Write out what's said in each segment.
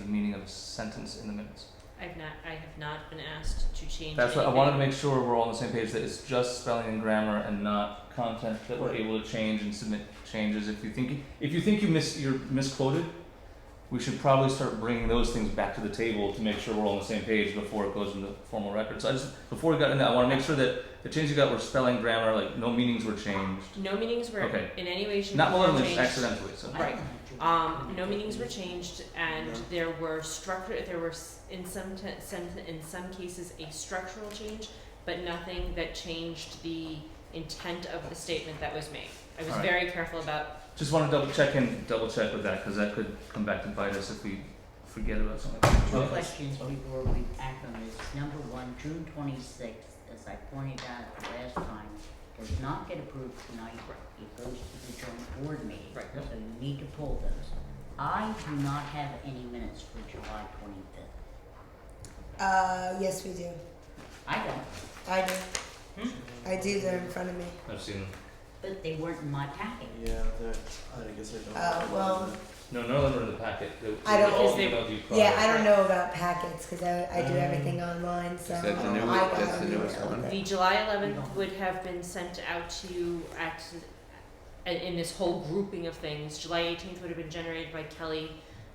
the meaning of a sentence in the minutes. I've not, I have not been asked to change anything. That's what I wanted to make sure we're all on the same page, that it's just spelling and grammar and not content that we're Right. able to change and submit changes. If you think, if you think you miss, you're misquoted, we should probably start bringing those things back to the table to make sure we're all on the same page before it goes in the formal record. So I just, before we got into that, I wanna make sure that the changes you got were spelling, grammar, like no meanings were changed. No meetings were Okay. in any way, shape, or Not form willingly, changed. accidentally, so. Right. Um, no meetings were changed and there were structure, there were s- in some te- some, in some cases a structural change, but nothing that changed the intent of the statement that was made. I was Alright. very careful about, Just wanna double check and double check with that, cause that could come back to bite us if we forget about something. Well, Two Okay. questions before we act on this. Number one, June twenty-sixth, as I pointed out the last time, does not get approved tonight. It goes to the joint board meeting. Right. Yep. So you need to pull those. I do not have any minutes for July twenty-fifth. Uh, yes, we do. I don't, I do. I do. They're in front of me. I've seen them. but they weren't in my packet. Yeah, that, I guess I don't. Uh, well, No, none of them are in the packet. They, I they don't- all Because they- emailed you Oh, prior. Yeah, I don't know about packets because I, I do Um, everything online. So Mm. is that the um, new- I got that's the an newest email one? that- the July eleventh would have been sent out to you at, in, in this whole grouping of things. July eighteenth would have been generated by Kelly,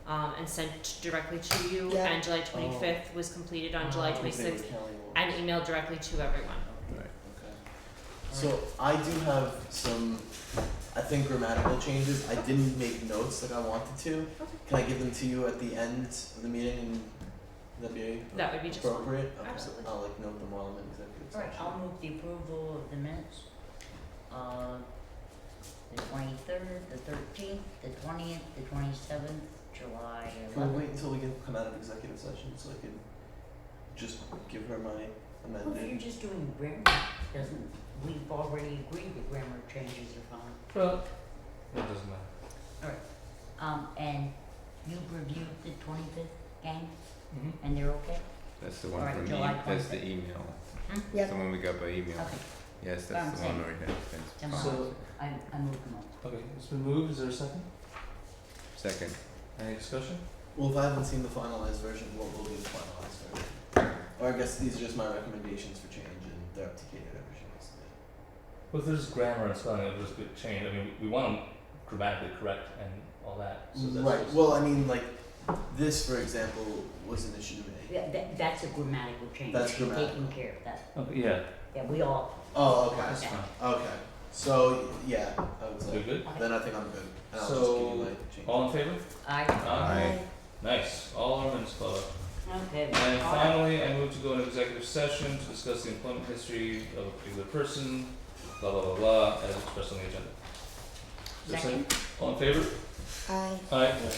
um, and sent directly to you. Yeah. And July twenty-fifth was completed on July twenty-sixth and emailed directly to everyone. Okay. So I do have some, I think grammatical changes. I didn't make notes like I wanted to. Okay. Can I give them to you at the end of the meeting and that'd be That would be just fine. appropriate? Okay. Absolutely. I'll like note them while I'm in executive Alright, session. I'll move the approval of the minutes. Uh, the twenty-third, the thirteenth, the twentieth, the twenty-seventh, July Can we wait eleventh. until we can come out of executive session so I can just give her my Well, if you're amended? just doing grammar, doesn't, we've already agreed that grammar changes are fine. Well, that doesn't matter. Um, and you reviewed the twenty-fifth gang, Mm-hmm. and they're okay? That's the one Alright, from me. July That's 25th. the email. Yep. The one we got by email. Okay, Yes, Sounds that's the one safe. right there. Thanks. Sounds So- I, I moved them up. Okay, it's been moved. Is there a second? Second. Any discussion? Well, if I haven't seen the finalized version, what will be the finalized version? Or I guess these are just my recommendations for change and they're up to Kate at every chance. Well, if there's grammar and spelling, it'll just get changed. I mean, we want them grammatically correct and all that. So that's Right, just- well, I mean, like, this, for example, was an issue to me. Yeah, that, that's a grammatical change, That's She's taking grammatical. care of that, Okay, yeah. yeah, we all, Oh, That's okay, fine. okay, so, yeah, I was We like, good? then I think I'm good, and I'll just give you So, my change. All in favor? I, Aye. Aye. Nice. All our minutes followed. okay, And all right. finally, I move to go into executive session to discuss the employment history of a particular person, blah, blah, blah, blah, as expressed on the agenda. Is there a Second. All in favor? I Aye. Yeah.